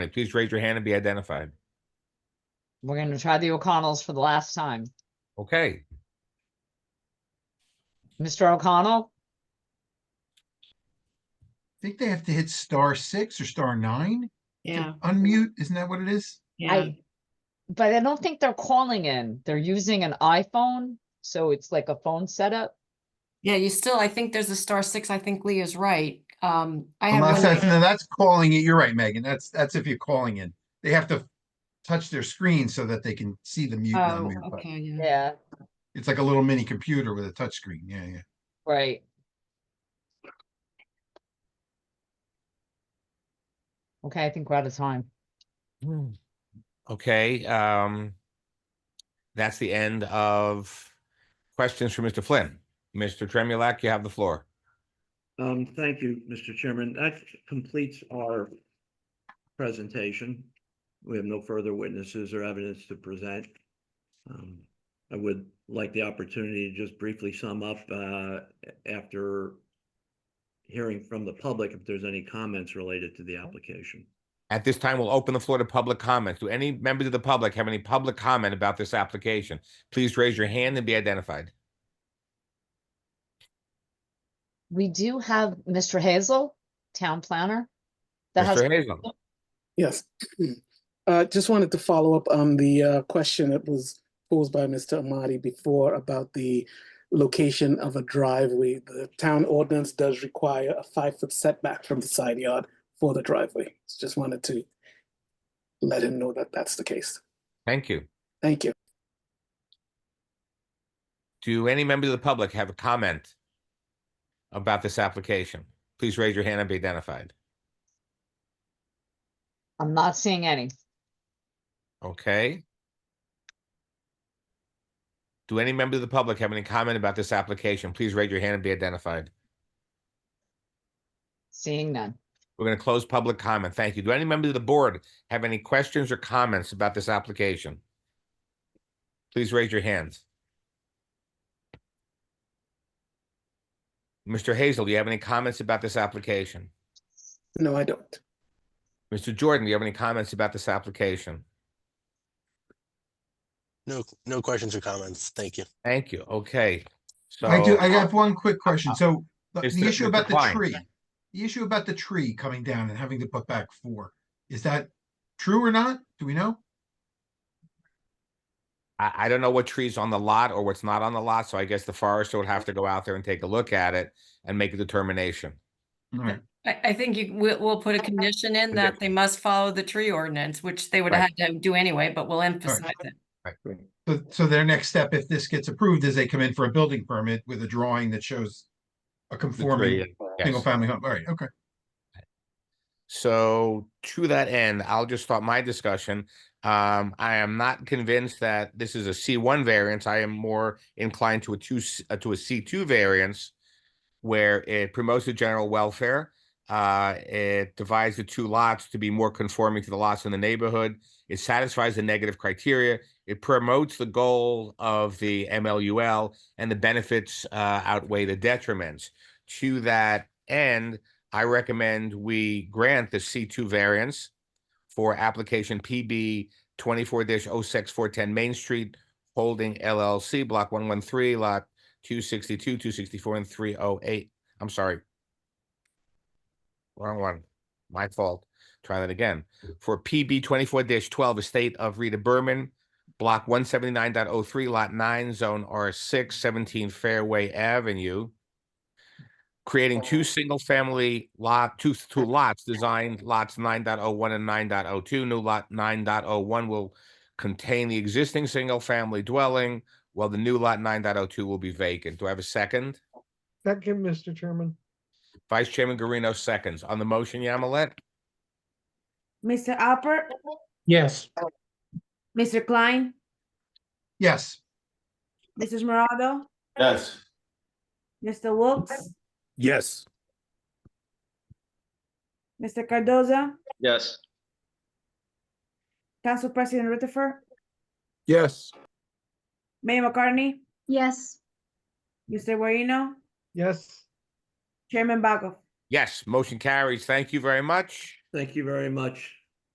Please raise your hand and be identified. We're gonna try the O'Connells for the last time. Okay, Mr. O'Connell, think they have to hit star six or star nine. to Yeah, Unmute, isn't that what it is? yeah. I, but I don't think they're calling in. They're using an iPhone, so it's like a phone setup. Yeah, you still, I think there's a star six. I think Lee is right. Um, I have Unless one. that's, that- no, that's calling it, you're right, Megan, that's, that's if you're calling in. They have to touch their screen so that they can see the mute. and Oh, unmute button. okay, yeah. Yeah, It's like a little mini computer with a touch screen. yeah, yeah. right. Okay, I think we're out of time. Hmm. okay, um. That's the end of questions for Mr. Flynn. Mr. Tremulak, you have the floor. Um, thank you, Mr. Chairman. That completes our presentation. We have no further witnesses or evidence to present. Um, I would like the opportunity to just briefly sum up, uh, after hearing from the public if there's any comments related to the application. At this time, we'll open the floor to public comments. Do any members of the public have any public comment about this application? Please raise your hand and be identified. We do have Mr. Hazel, town planner. That has, Mr. Hazel, Yes. Uh, just wanted to follow up on the uh, question that was posed by Mr. Amadi before about the location of a driveway. The town ordinance does require a five-foot setback from the side yard for the driveway. Just wanted to let him know that that's the case. thank you. Thank you. Do any members of the public have a comment about this application? Please raise your hand and be identified. I'm not seeing any. Okay. Do any member of the public have any comment about this application? Please raise your hand and be identified. Seeing none. We're going to close public comment. Thank you. Do any member of the board have any questions or comments about this application? Please raise your hands. Mr. Hazel, do you have any comments about this application? No, I don't. Mr. Jordan, do you have any comments about this application? No, no questions or comments. Thank you. Thank you. Okay. So I do, I have one quick question, so the Is the the- issue the about the decline. tree, the issue about the tree coming down and having to put back four, is that true or not? Do we know? I, I don't know what trees on the lot or what's not on the lot, so I guess the forester would have to go out there and take a look at it and make a determination. Alright, I, I think you, we'll, we'll put a condition in Yeah. that they must follow the tree ordinance, which they would Right. have to do anyway, but we'll emphasize it. so, so their next step, if this gets approved, is they come in for a building permit with a drawing that shows a The tree, conforming yes. single family home, alright, okay. So to that end, I'll just start my discussion. Um, I am not convinced that this is a C one variance. I am more inclined to a two, s- uh, to a C two variance. Where it promotes the general welfare, uh, it divides the two lots to be more conforming to the lots in the neighborhood. It satisfies the negative criteria. It promotes the goal of the MLUL and the benefits, uh, outweigh the detriments. To that end, I recommend we grant the C two variance for application PB twenty-four 6410 Main Street Holding LLC, block one one three, lot two sixty-two, two sixty-four, and three oh eight. I'm sorry. Wrong one. My fault. Try that again. For PB twenty-four twelve, Estate of Rita Berman, block one seventy-nine oh lot nine, zone R 6 17 Fairway Avenue creating two single-family lot, two, two lots, designed lots 9.01 and 9.02. New lot 9.01 will contain the existing single-family dwelling, while the new lot 9.02 will be vacant. Do I have a second? Second, Mr. Chairman. Vice Chairman Garino seconds. On the motion, Yamilet? Mr. Alpert, Yes. Mr. Klein, Yes, Mrs. Morado, Yes. Mr. Wilks, Yes. Mr. Cardoza, Yes. Council President Rutherford, Yes. Mayor McCartney, Yes, Mr. Guarino, Yes. Chairman Bago. Yes, motion carries. Thank you very much. Thank you very much.